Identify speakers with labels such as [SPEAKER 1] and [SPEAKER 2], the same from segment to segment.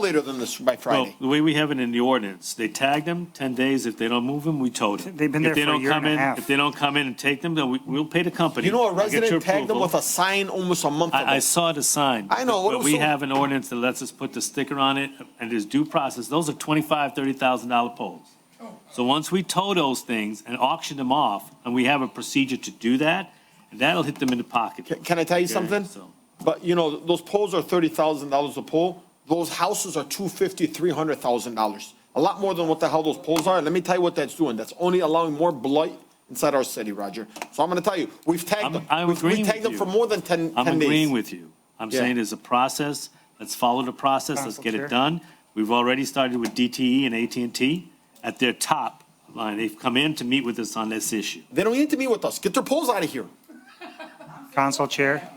[SPEAKER 1] later than this, by
[SPEAKER 2] Well,
[SPEAKER 1] Friday.
[SPEAKER 2] the way we have it in the ordinance, they tag them 10 days. If they don't move them, we tow them.
[SPEAKER 3] They've been
[SPEAKER 2] If
[SPEAKER 3] there
[SPEAKER 2] they
[SPEAKER 3] for a
[SPEAKER 2] don't
[SPEAKER 3] year
[SPEAKER 2] come
[SPEAKER 3] and a
[SPEAKER 2] in-
[SPEAKER 3] half.
[SPEAKER 2] If they don't come in and take them, then we- we'll pay the company.
[SPEAKER 1] You know, a
[SPEAKER 2] I'll get your
[SPEAKER 1] resident tagged them
[SPEAKER 2] approval.
[SPEAKER 1] with a sign almost a month ago.
[SPEAKER 2] I, I saw the sign.
[SPEAKER 1] I know, what
[SPEAKER 2] But
[SPEAKER 1] was
[SPEAKER 2] we
[SPEAKER 1] so-
[SPEAKER 2] have an ordinance that lets us put the sticker on it, and there's due process. Those are twenty-five, thirty thousand dollar poles. So once we tow those things and auction them off, and we have a procedure to do that, that'll hit them in the pocket.
[SPEAKER 1] Ca- Can I tell you something?
[SPEAKER 2] So-
[SPEAKER 1] But you know, those poles are thirty thousand dollars a pole. Those houses are two fifty, three hundred thousand dollars. A lot more than what the hell those poles are. Let me tell you what that's doing. That's only allowing more blight inside our city, Roger. So I'm gonna tell you, we've
[SPEAKER 2] I'm-
[SPEAKER 1] tagged them.
[SPEAKER 2] I'm
[SPEAKER 1] We've-
[SPEAKER 2] agreeing
[SPEAKER 1] We've tagged
[SPEAKER 2] with
[SPEAKER 1] them for
[SPEAKER 2] you.
[SPEAKER 1] more than 10
[SPEAKER 2] I'm
[SPEAKER 1] 10 days.
[SPEAKER 2] agreeing with you. I'm
[SPEAKER 1] Yeah.
[SPEAKER 2] saying there's a process. Let's follow the process. Let's get it
[SPEAKER 3] Council Chair.
[SPEAKER 2] done. We've already started with DTE and at and T at their top line. They've come in to meet with us on this issue.
[SPEAKER 1] They don't need to meet with us. Get their poles out of here.
[SPEAKER 3] Council Chair,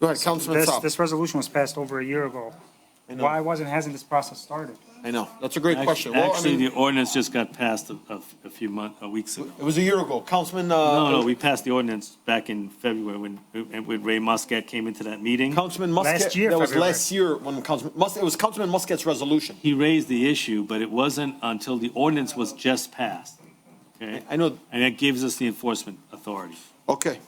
[SPEAKER 1] Go ahead, Councilman
[SPEAKER 3] this,
[SPEAKER 1] Saab.
[SPEAKER 3] this resolution was passed over a year ago.
[SPEAKER 1] know.
[SPEAKER 3] Why wasn't, hasn't this process started?
[SPEAKER 1] I know. That's a great question. Well, I
[SPEAKER 2] Actually,
[SPEAKER 1] mean,
[SPEAKER 2] the ordinance just got passed a- a a few months, weeks ago.
[SPEAKER 1] it was a year ago. Councilman, uh.
[SPEAKER 2] No, no, we passed the ordinance back in February when, when Ray Muscat came into that meeting.
[SPEAKER 1] Councilman Muscat.
[SPEAKER 3] Last year,
[SPEAKER 1] That was
[SPEAKER 3] February.
[SPEAKER 1] last year when Councilman, Mus- it was Councilman Muscat's resolution.
[SPEAKER 2] He raised the issue, but it wasn't until the ordinance was just passed. Okay?
[SPEAKER 1] I know.
[SPEAKER 2] And that gives us the enforcement authority.
[SPEAKER 1] Okay.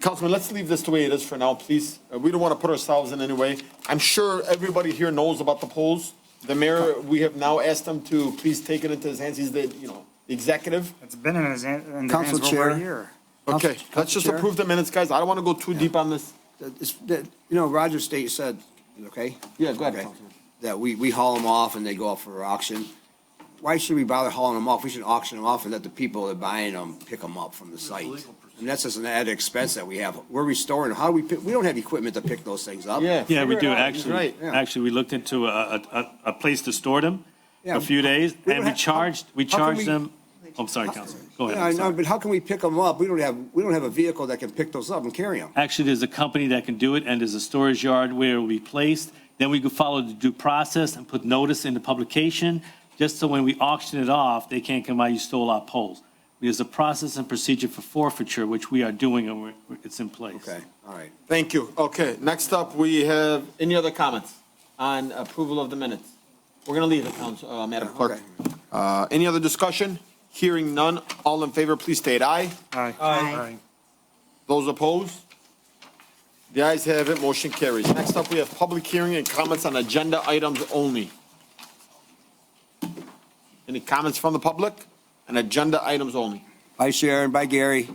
[SPEAKER 1] Councilman, let's leave this the way it is for now, please. Uh, We don't want to put ourselves in any way. I'm sure everybody here knows about the polls. The mayor, we have now asked him to please take it into his hands. He's the, you know, executive.
[SPEAKER 3] It's been in his, hand- in the hands
[SPEAKER 4] Council
[SPEAKER 3] for over a
[SPEAKER 4] Chair.
[SPEAKER 3] year.
[SPEAKER 1] Okay, let's just
[SPEAKER 4] Council Chair?
[SPEAKER 1] approve the minutes, guys. I don't want to go too deep on this.
[SPEAKER 4] That is- that- You know, Roger State said, okay?
[SPEAKER 1] Yeah, go ahead,
[SPEAKER 4] Okay.
[SPEAKER 1] Councilman.
[SPEAKER 4] That we, we haul them off and they go up for auction. Why should we bother hauling them off? We should auction them off and let the people that are buying them pick them up from the site. And that's just an added expense that we have. We're restoring, how do we, pick- we don't have equipment to pick those things up.
[SPEAKER 1] Yeah.
[SPEAKER 2] Yeah,
[SPEAKER 1] figure
[SPEAKER 2] we
[SPEAKER 1] it
[SPEAKER 2] do,
[SPEAKER 1] out. He's
[SPEAKER 2] actually.
[SPEAKER 1] Right.
[SPEAKER 4] yeah.
[SPEAKER 2] Actually, we looked into a, a, a- a place to store them
[SPEAKER 4] Yeah.
[SPEAKER 2] a few days,
[SPEAKER 4] We
[SPEAKER 2] and
[SPEAKER 4] don't
[SPEAKER 2] we
[SPEAKER 4] have-
[SPEAKER 2] charged, we
[SPEAKER 4] how- how can
[SPEAKER 2] charged
[SPEAKER 4] we-
[SPEAKER 2] them. Oh, I'm sorry, Councilman, go ahead.
[SPEAKER 4] Yeah, I
[SPEAKER 2] I'm
[SPEAKER 4] know,
[SPEAKER 2] sorry.
[SPEAKER 4] but how can we pick them up? We don't have, we don't have a vehicle that can pick those up and carry them.
[SPEAKER 2] Actually, there's a company that can do it, and there's a storage yard where it'll be placed. Then we could follow the due process and put notice in the publication, just so when we auction it off, they can't come out, you stole our poles. There's a process and procedure for forfeiture, which we are doing, and we're- it's in place.
[SPEAKER 4] Okay, all right.
[SPEAKER 1] Thank you. Okay, next up, we have any other comments on approval of the minutes? We're going to leave it, Council, uh, Madam Clerk.
[SPEAKER 4] Okay.
[SPEAKER 1] Uh, any other discussion? Hearing none. All in favor, please state aye.
[SPEAKER 3] Aye.
[SPEAKER 1] Aye. Those opposed? The ayes have it, motion carries. Next up, we have public hearing and comments on agenda items only. Any comments from the public on agenda items only?
[SPEAKER 4] Bye Sharon, bye Gary.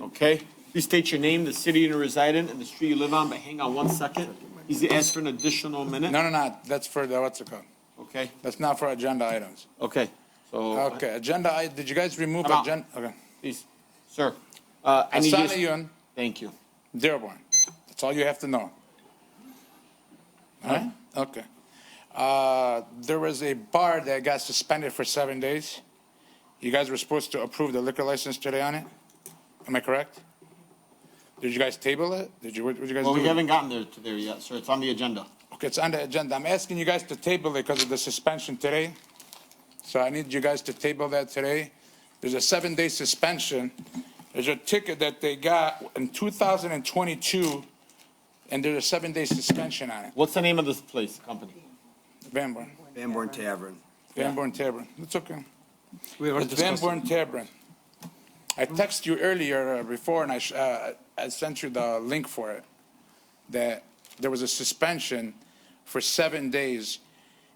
[SPEAKER 1] Okay? Please state your name, the city you reside in, and the street you live on, but hang on one second. He's asked for an additional minute.
[SPEAKER 5] No, no, no, that's for the, what's it called?
[SPEAKER 1] Okay,
[SPEAKER 5] That's not for agenda items.
[SPEAKER 1] okay. So,
[SPEAKER 5] Okay, agenda, I, did you guys remove
[SPEAKER 1] I'm out.
[SPEAKER 5] agenda? Okay.
[SPEAKER 1] please, sir. uh, I need you-
[SPEAKER 5] Asana Yun,
[SPEAKER 1] Thank you.
[SPEAKER 5] Dearborn. That's all you have to know. All right, okay. Uh, there was a bar that got suspended for seven days. You guys were supposed to approve the liquor license today on it? Am I correct? Did you guys table it? Did you, what did you guys do?
[SPEAKER 1] Well, we
[SPEAKER 5] with it?
[SPEAKER 1] haven't gotten there to there yet, sir. It's on the agenda.
[SPEAKER 5] Okay, it's on the agenda. I'm asking you guys to table it because of the suspension today. So I need you guys to table that today. There's a seven-day suspension. There's a ticket that they got in 2022, and there's a seven-day suspension on it.
[SPEAKER 1] What's the name of this place, company?
[SPEAKER 5] Van Born,
[SPEAKER 4] Van Born Tavern.
[SPEAKER 5] Van Born Tavern. It's okay.
[SPEAKER 6] We already
[SPEAKER 5] It's Van
[SPEAKER 6] discussed it.
[SPEAKER 5] Born Tavern. I texted you earlier uh, before, and I, sh- uh, I sent you the link for it, that there was a suspension for seven days.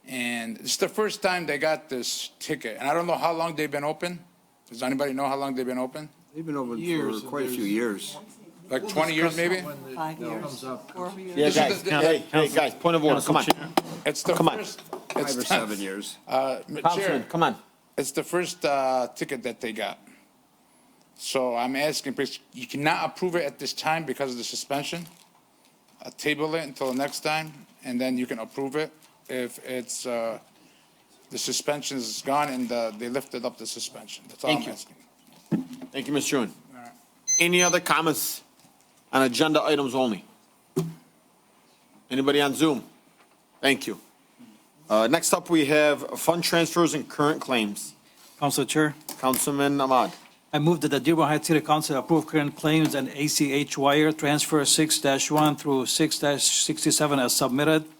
[SPEAKER 5] And it's the first time they got this ticket, and I don't know how long they've been open. Does anybody know how long they've been open?
[SPEAKER 4] They've been open
[SPEAKER 6] Years,
[SPEAKER 4] for quite a few years.
[SPEAKER 5] Like 20 years, maybe?
[SPEAKER 7] Five years, four years.
[SPEAKER 1] Yeah,
[SPEAKER 5] This
[SPEAKER 1] guys,
[SPEAKER 5] is the-
[SPEAKER 1] hey, hey, guys, point of order,
[SPEAKER 2] Council
[SPEAKER 1] come on.
[SPEAKER 2] Chair.
[SPEAKER 5] It's the
[SPEAKER 1] Come on.
[SPEAKER 5] first. it's
[SPEAKER 4] Five or
[SPEAKER 5] the-
[SPEAKER 4] seven years.
[SPEAKER 5] Uh,
[SPEAKER 1] Councilman,
[SPEAKER 5] Chair,
[SPEAKER 1] come on.
[SPEAKER 5] It's the first uh, ticket that they got. So I'm asking, please, you cannot approve it at this time because of the suspension. Uh, Table it until next time, and then you can approve it if it's, uh, the suspension is gone and uh, they lifted up the suspension. That's all
[SPEAKER 1] Thank
[SPEAKER 5] I'm
[SPEAKER 1] you.
[SPEAKER 5] asking.
[SPEAKER 1] Thank you, Ms. Juen. Any other comments on agenda items only? Anybody on Zoom? Thank you. Uh, next up, we have fund transfers and current claims.
[SPEAKER 6] Council Chair,
[SPEAKER 1] Councilman Ahmad.
[SPEAKER 6] I move that the Dearborn Heights City Council approve current claims and ACH wire transfer six one through six sixty-seven as submitted